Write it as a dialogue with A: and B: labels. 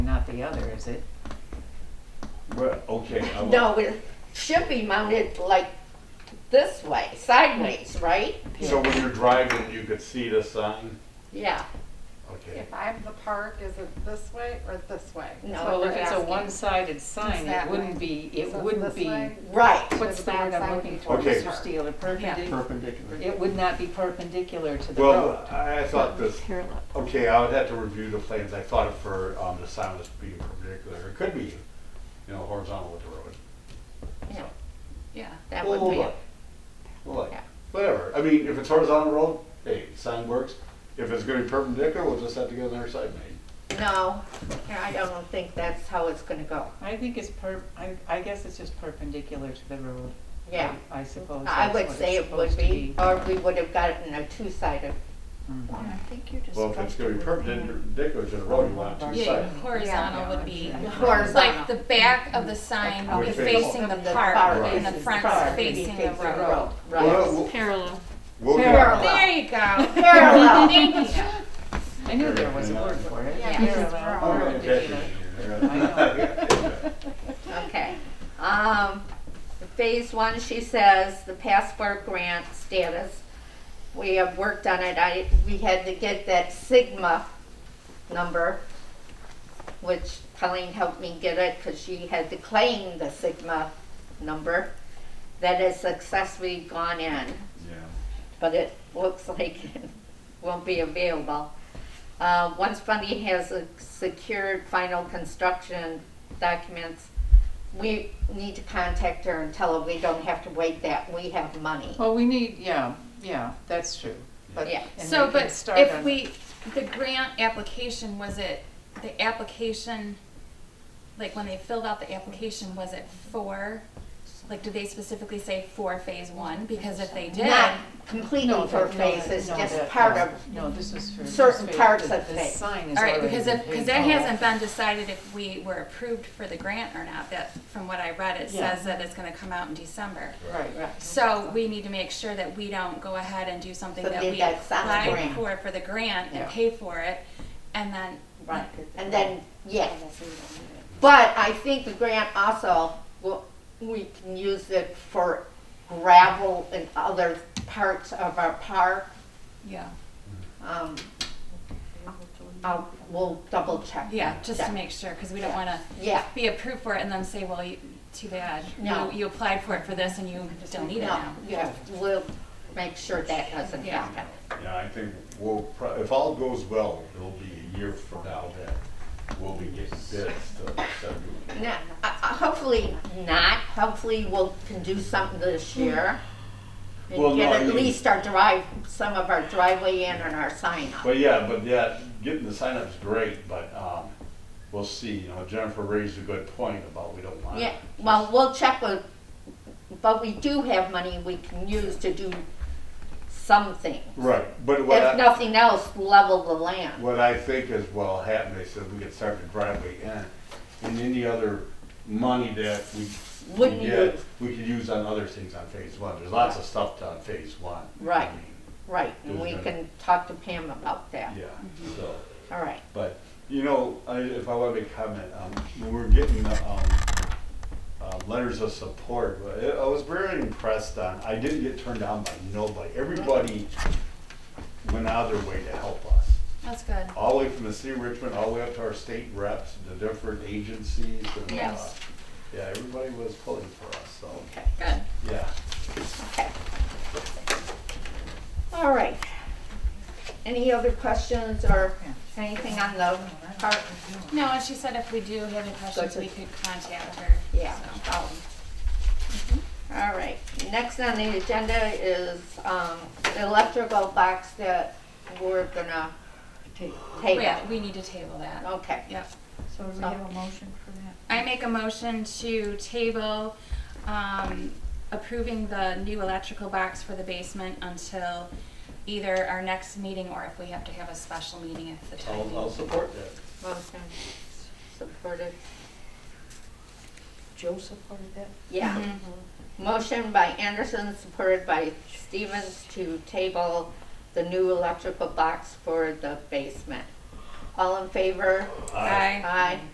A: not the other, is it?
B: Well, okay, I will,
C: No, it should be mounted like this way, sideways, right?
B: so when you're driving, you could see the sign?
C: Yeah,
B: Okay.
D: If I'm the park, is it this way or this way? That's
C: No,
D: what
A: Well,
D: we're
A: if it's a
D: asking.
A: one-sided sign, it
D: that
A: wouldn't
D: way.
A: be, it
D: So it's
A: wouldn't
D: this
A: be,
D: way?
C: right.
A: what's the word I'm looking for,
B: Okay.
A: Mr. Steele? A perpendicular,
E: Perpendicular.
A: it would not be perpendicular to the road.
B: Well, I thought this,
E: Parallel.
B: okay, I would have to review the plans, I thought for, um, the sign was being perpendicular, it could be, you know, horizontal with the road.
C: Yeah,
D: Yeah.
C: That
B: Well,
C: would be,
B: look. Well, like,
C: Yeah.
B: whatever, I mean, if it's horizontal road, hey, sign works, if it's gonna be perpendicular, we'll just have to get another sign made.
C: no, I don't think that's how it's gonna go.
A: I think it's per, I, I guess it's just perpendicular to the road.
C: Yeah,
A: I suppose
C: I
A: that's
C: would
A: what
C: say
A: it's
C: it would
A: supposed to
C: be, or we would have gotten a two-sided
A: Mhm.
F: I think you're just.
B: Well, if it's gonna be
F: supposed to remain-
B: perpendicular to the road, you want two
F: Yeah,
B: sides.
F: horizontal would be,
C: horizontal.
F: like the back of the sign
B: Would
F: is
B: face-
F: facing the
C: the
F: park
C: park
F: and the
C: faces
F: front's
C: park
F: facing the
C: faces the
F: road.
B: Well,
C: Right.
B: we'll-
E: Parallel.
B: we'll get-
C: Parallel.
F: There you go.
C: Parallel.
A: I knew there was a word for it.
F: Yeah.
B: All
A: Parallel.
B: right,
A: Perpendicular.
B: okay.
C: Okay. Um, phase one, she says, the passport grant status. We have worked on it. I, we had to get that Sigma number, which Colleen helped me get it because she had to claim the Sigma number that has successfully gone in
B: Yeah.
C: but it looks like it won't be available. Uh, once funding has uh, secured final construction documents, we need to contact her and tell her we don't have to wait that, we have money.
A: Well, we need, yeah, yeah, that's true. But-
C: Yeah.
A: and
F: So,
A: we can
F: but
A: start
F: if
A: on-
F: we, the grant application, was it, the application, like when they filled out the application, was it for, like, did they specifically say for phase one? Because if they did,
C: Not completely
A: No,
C: for
A: that- no,
C: phase,
A: that-
C: it's
A: no,
C: just
A: that-
C: part of,
A: No, this is for.
C: certain
A: this
C: parts
A: the-
C: of
A: the
C: phase.
A: sign is
F: all right,
A: already
F: because if, because
A: paved
F: that
A: all
F: hasn't
A: over.
F: been decided if we were approved for the grant or not, that, from what I read, it
A: Yeah.
F: says that it's gonna come out in December.
A: Right, right.
F: So we need to make sure that we don't go ahead and do something
C: So
F: that
C: they
F: we
C: got some
F: applied
C: grant.
F: for, for the grant
A: Yeah.
F: and pay for it, and then.
C: right, and then, yeah.
A: Oh,
C: But I think the grant also, will- we can use it for gravel and other parts of our park.
F: Yeah.
C: Um, I'll, we'll double check.
F: Yeah, just
C: Yeah.
F: to make sure, because we don't wanna
C: Yeah,
F: be approved for it and then say, well, you, too bad.
C: No.
F: You you applied for it for this and you don't need it
C: no,
F: now.
C: yeah, we'll make sure that doesn't
F: Yeah.
C: happen.
B: Yeah, I think we'll, pro- if all goes well, it'll be a year from now that we'll be getting bids to start doing it.
C: No, uh, hopefully not, hopefully we'll can do something this
F: Hmm.
C: year.
B: Well,
C: And
B: no, I
C: get at
B: mean-
C: least our drive, some of our driveway in and our sign up.
B: But yeah, but yeah, getting the sign up's great, but, um, we'll see, you know, Jennifer raised a good point about we don't want.
C: Yeah, well, we'll check with, but we do have money we can use to do something.
B: Right, but what
C: If
B: I,
C: nothing else, level the land.
B: What I think is what'll happen is that we could start the driveway in, and any other money that we we
C: Wouldn't
B: get,
C: use.
B: we could use on other things on phase one. There's lots of stuff done phase one. I
C: Right.
B: mean,
C: Right, and we
B: There's no-
C: can talk to Pam about that.
B: Yeah,
C: Mm-hmm.
B: so,
C: All right,
B: but, you know, I, if I wanna make a comment, um, when we're getting, the, um, uh, letters of support, I I was very impressed on, I didn't get turned down by nobody. Everybody went out of their way to help us.
F: That's good.
B: all the way from the city of Richmond, all the way up to our state reps, the different agencies and, uh,
F: Yes.
B: yeah, everybody was pulling for us, so,
C: okay,
F: Good.
B: yeah.
C: okay. All right. Any other questions or anything on the park?
F: No, and she said if we do have any questions,
C: to-
F: we could contact her.
C: Yeah,
F: so.
C: um, all right. Next on the agenda is, um, the electrical box that we're gonna take.
F: Yeah, we need to table that.
C: Okay, Oh,
F: Yep.
G: So do we have a motion for that?
F: I make a motion to table, um, approving the new electrical box for the basement until either our next meeting or if we have to have a special meeting if the time.
B: I'll, I'll support that.
C: motion supported,
G: Joe supported that?
C: yeah.
F: Mhm.
C: Motion by Anderson, supported by Stevens to table the new electrical box for the basement. All in favor?
F: Aye.
C: Aye.